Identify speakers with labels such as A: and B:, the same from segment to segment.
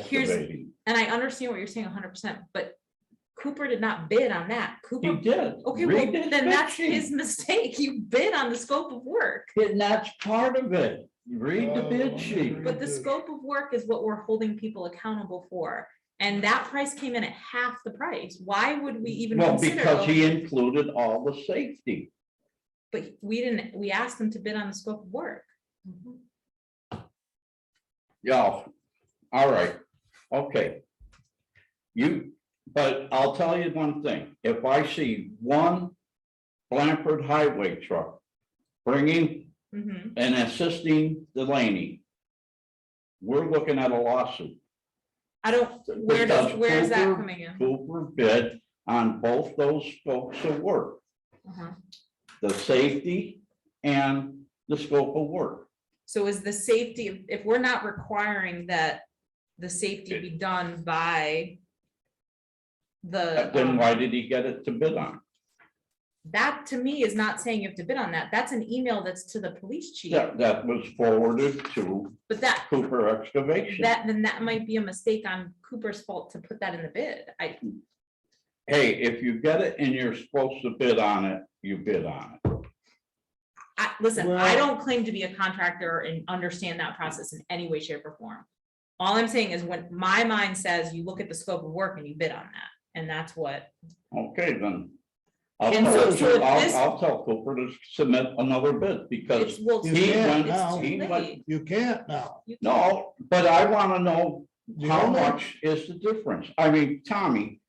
A: here's- And I understand what you're saying hundred percent, but Cooper did not bid on that.
B: He
A: Cooper,
B: did.
A: okay, well,
B: Read his
A: then that's
B: bid sheet.
A: his mistake. You bid on the scope of work.
B: And that's part of it. Read the bid sheet.
A: Oh. But the
C: Mhm.
A: scope of work is what we're holding people accountable for. And that price came in at half the price. Why would we even
B: Well,
A: consider?
B: because
A: a-
B: he included all the safety.
A: But we didn't, we asked them to bid on the scope of work.
B: Mm-hmm. Yeah, all right, okay. You, but I'll tell you one thing, if I see one Blanford Highway truck bringing
A: Mhm.
B: and assisting Delaney, we're looking at a lawsuit.
A: I don't, where does,
B: Because
A: where is that
B: Cooper-
A: coming in?
B: Cooper bid on both those scopes of work,
A: Uh-huh.
B: the safety and the scope of work.
A: So is the safety, if we're not requiring that the safety be done by the.
B: Then
A: um,
B: why did he get it to bid on?
A: That to me is not saying you have to bid on that. That's an email that's to the police chief,
B: That, that was forwarded to
A: but that,
B: Cooper Excavation.
A: that, then that might be a mistake on Cooper's fault to put that in the bid. I,
B: hey, if you get it and you're supposed to bid on it, you bid on it.
A: I, listen, I
C: Well-
A: don't claim to be a contractor and understand that process in any way, shape or form. All I'm saying is when my mind says you look at the scope of work and you bid on that, and that's what,
B: Okay, then. I'll
A: And so-
B: tell,
A: so if this-
B: I'll, I'll tell Cooper to submit another bid
A: it's,
B: because,
A: well, it's
C: You
A: too
C: can't
A: late,
C: now.
A: it's
B: He
A: too
B: went-
A: late.
C: You can't now.
A: You-
B: no, but I want to know
C: You
B: how
C: know that?
B: much is the difference? I mean, Tommy,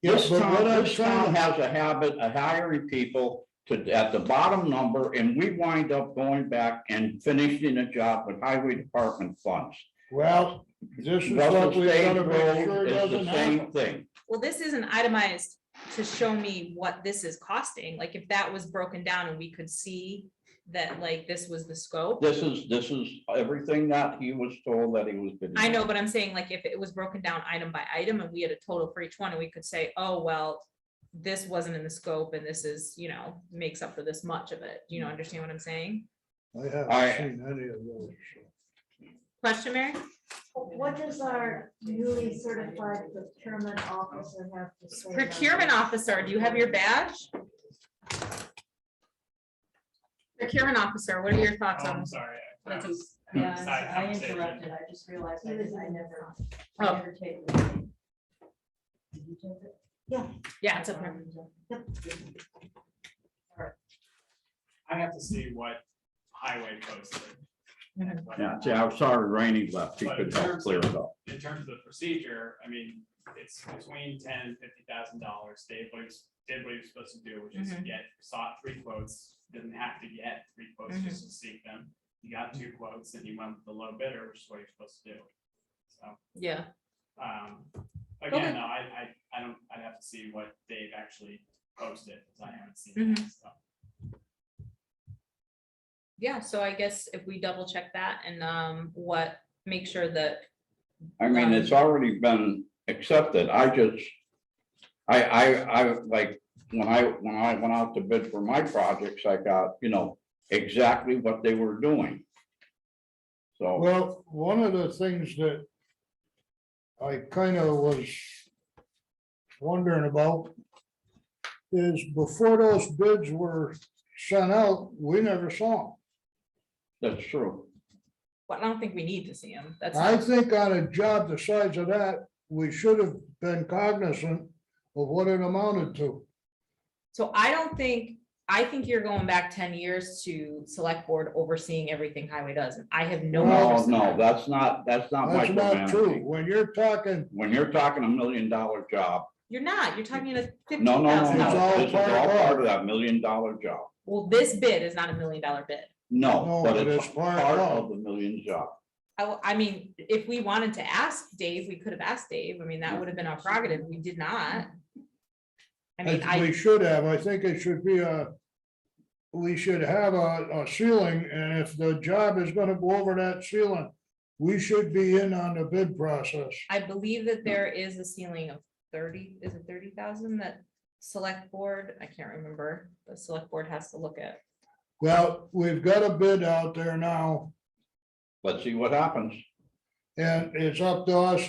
C: Yes,
B: this
C: but
B: town,
C: what I'm
B: this town
C: trying,
B: has a habit of hiring people to, at the bottom number, and we wind up going back and finishing a job with highway department funds.
C: well, this is
B: Russell
C: what we've got to
B: Stage
C: make
B: Road
C: sure
B: is
C: doesn't
B: the
C: happen.
B: same thing.
A: Well, this isn't itemized to show me what this is costing, like if that was broken down and we could see that like this was the scope.
B: This is, this is everything that he was told that he was. bidding
A: I
B: on.
A: know, but I'm saying like if it was broken down item by item and we had a total for each one and we could say, oh, well, this wasn't in the scope and this is, you know, makes up for this much of it. Do you know, understand what I'm saying?
C: I
B: I-
C: haven't seen any of those.
A: Question, Mary?
D: What does our newly certified procurement officer have to say? about
A: Procurement
D: it?
A: officer, do you have your badge? Procurement officer, what are your thoughts
E: Oh,
A: on
E: I'm
A: this?
E: sorry. I-
F: That's a-
E: Hmm.
F: Yeah, I'm sorry,
E: Side
F: I
E: conversation.
F: interrupted. I just realized I
D: He was
F: didn't-
D: in
F: I
D: the
F: never.
A: Oh.
F: I never take the meeting. Did you take it?
A: Yeah, it's up here.
E: I have to see what highway posted.
F: Mm-hmm.
E: and what-
B: Yeah, see, I'm sorry, Rainey left. He
E: But
B: could
E: in
B: help
E: terms
B: clear
E: of-
B: it up.
E: In terms of the procedure, I mean, it's between ten and fifty thousand dollars. Dave, what he was- did what he was supposed to do, which is
F: Mm-hmm.
A: Mhm.
E: get, sought three quotes, didn't have to get three quotes, just
F: Mm-hmm.
E: to seek them. He got two quotes and he went with the low bidder, which is what you're supposed to do. So.
A: Yeah,
E: Um,
A: Okay.
E: again, no, I, I, I don't, I'd have to see what they've actually posted, because I haven't seen
A: Mhm.
F: Mm-hmm.
E: that stuff.
A: yeah, so I guess if we double check that and um what, make sure that,
B: I mean, it's already been accepted. I just. I, I, I, like, when I, when I went out to bid for my projects, I got, you know, exactly what they were doing. So,
C: Well, one of the things that I kind of was wondering about is before those bids were sent out, we never saw
B: that's true.
A: well, I don't think we need to see him. That's.
C: them. I
A: not-
C: think on a job the size of that, we should have been cognizant of what it amounted to.
A: So I don't think, I think you're going back ten years to select board overseeing everything highway does, and I have no.
B: No,
A: interest in
B: no,
A: that.
B: that's not, that's not
C: That's not true.
B: micromanaging.
C: When you're talking,
B: When you're talking a million dollar job,
A: You're not, you're talking a fifteen
B: no, no, no,
A: thousand
C: It's all
A: dollars.
B: no, this is
C: part of
B: all
C: that.
B: part of that million dollar job.
A: Well, this bid is not a million dollar bid.
B: No,
C: No,
B: but it's part of
C: it.
B: the million job.
A: I, w- I mean, if we wanted to ask Dave, we could have asked Dave. I mean, that would have been our prerogative. We did not. I mean,
C: I-
A: I,
C: we should have, I think it should be a, we should have a, a ceiling, and if the job is gonna go over that ceiling, we should be in on the bid process.
A: I believe that there is a ceiling of thirty, is it thirty thousand that select board, I can't remember, the select board has to look at.
C: Well, we've got a bid out there now,
B: Let's see what happens.
C: and it's up to us